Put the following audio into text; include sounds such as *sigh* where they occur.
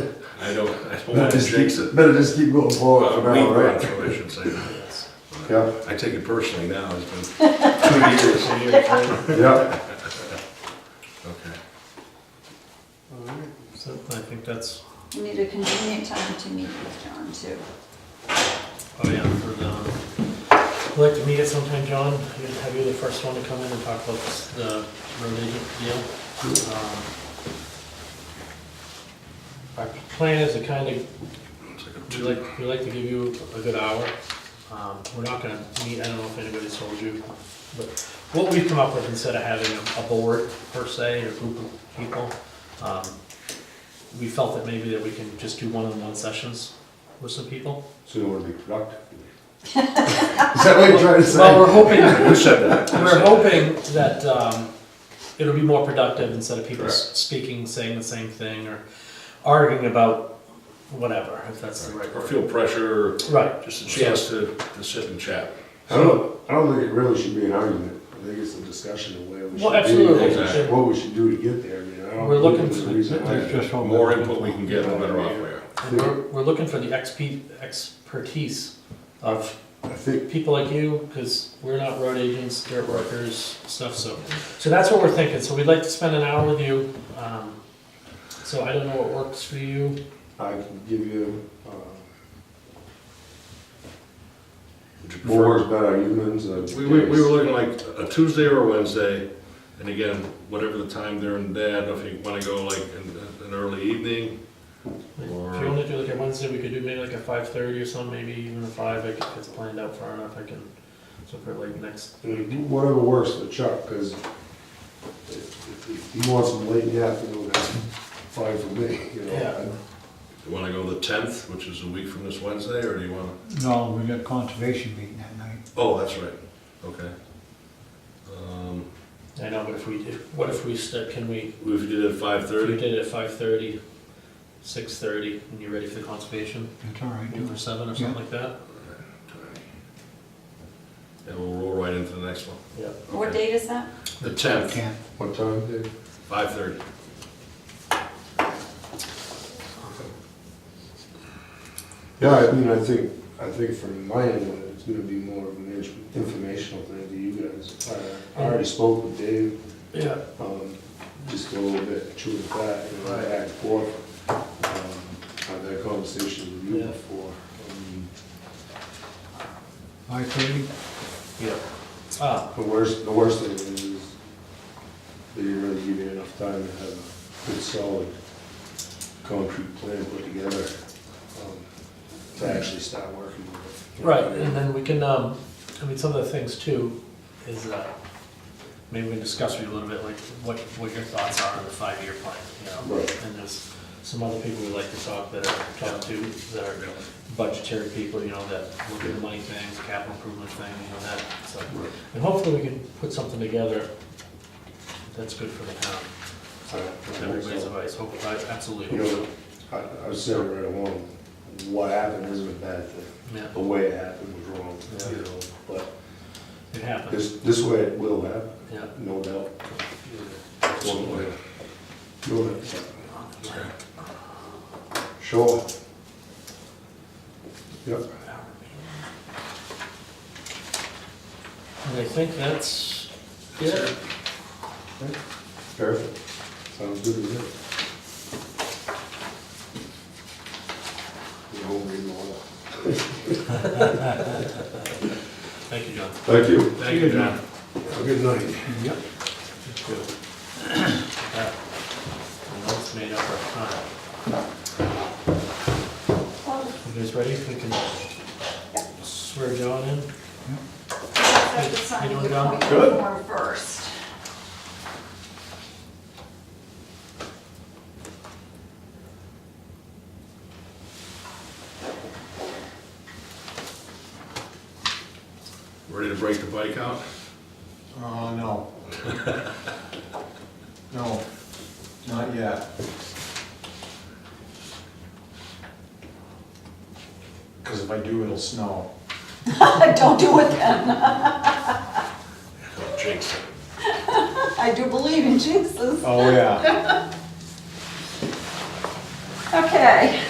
I don't, I don't Better want to just jinx keep, it. better just keep going forward Well, for we now, brought right? it, I should say. that. Yeah, I take it personally now, it's been *laughs* two years. yeah, Okay. So I think that's, We need a convenient time to meet with John too. oh yeah, for the, I'd like to meet at sometime, John, You- have you the first one to come in and talk about this, the road agent deal? Um, Our plan is to kind of It's like a We'd two- like, we'd like to give you a good hour. Um, We're not gonna meet, I don't know if anybody's told you, but what we've come up with instead of having a- a board per se, or group of people, um, we felt that maybe that we can just do one-on-one sessions with some people. So you want to be *laughs* productive. is that what you're trying to say? Well, we're hoping, Who said that? we're hoping that um, it'll be more productive instead of people Correct. speaking, saying the same thing, or arguing about whatever, if that's the right Or word. feel pressure, Right, just a chance to, to sit and chat. I don't, I don't think it really should be an argument. I think it's a discussion of where we should be. Well, absolutely. Exactly. What we should do to get there, I mean, I don't. We're looking think for- there's a reason The why- more input we can get, the better off we are. And we're, we're looking for the exp, expertise of I think, people like you, because we're not road agents, dirt workers, stuff, so. So that's what we're thinking, so we'd like to spend an hour with you, um, so I don't know what works for you. I can give you, uh, Would you prefer- boards better humans and. We, we, we were looking like a Tuesday or a Wednesday, and again, whatever the time there and there, I don't know if you wanna go like in, an early evening. If you Or- want to do like a Wednesday, we could do maybe like a five thirty or something, maybe even a five, if it gets planned out far enough, I can, so for like next, And Whatever works for Chuck, because if if he wants them late in the afternoon, that's fine for me, you know. Yeah. You wanna go the tenth, which is a week from this Wednesday, or do you wanna? No, we got conservation meeting that night. Oh, that's right, okay. Um, I know, but if we, did- what if we start, can we, if we did it at five if we thirty, did it at five thirty, six thirty, and you're ready for the conservation, That's all right, do do for it. seven or something like that? and we'll roll right into the next one. Yeah. What Okay. date is that? The tenth, Can't. What time, Dave? five thirty. Yeah, I mean, I think, I think from my end, it's gonna be more of an in- informational thing to you guys. uh, I I already spoke with Dave, Yeah, um, just a little bit, chewing fat, you know, back and forth. Um, Had that conversation with you Yeah. before. Um, Five thirty, yeah. Ah, The worst, the worst thing is that you really give you enough time to have a good solid concrete plan put together, um, to actually start working with it. right, and then we can, um, I mean, some of the things too is, uh, maybe we can discuss with you a little bit, like, what, what your thoughts are on the five-year plan, you know? Right. And there's some other people we like to talk that are, talk to, that are budgetary people, you know, that look at the money things, capital improvement thing, you know, that, so. Right. And hopefully we can put something together that's good for the town, with everybody's advice, hopefully, I absolutely, You hope so. know, I, I was saying right along, what happened isn't a bad thing. yeah, The way it happened was wrong, Yeah. you know, but it happens, this, this way it will happen, yeah. no doubt. One way. Absolutely. Sure. Sure. Yep, And I think that's it. perfect. Sounds good to me. You know, we know. Thank you, John. Thank you. Thank you, John. Have a good night. yep. *coughs* Notes made up our time. Oh, You guys ready? We can swear John in. that's the signing doing the well? appointment form first. Ready to break the bike out? Oh, no. No, not yet. Because if I do, it'll snow. *laughs* Don't do it then. Don't jinx it. I do believe in Jesus. Oh, yeah. Okay.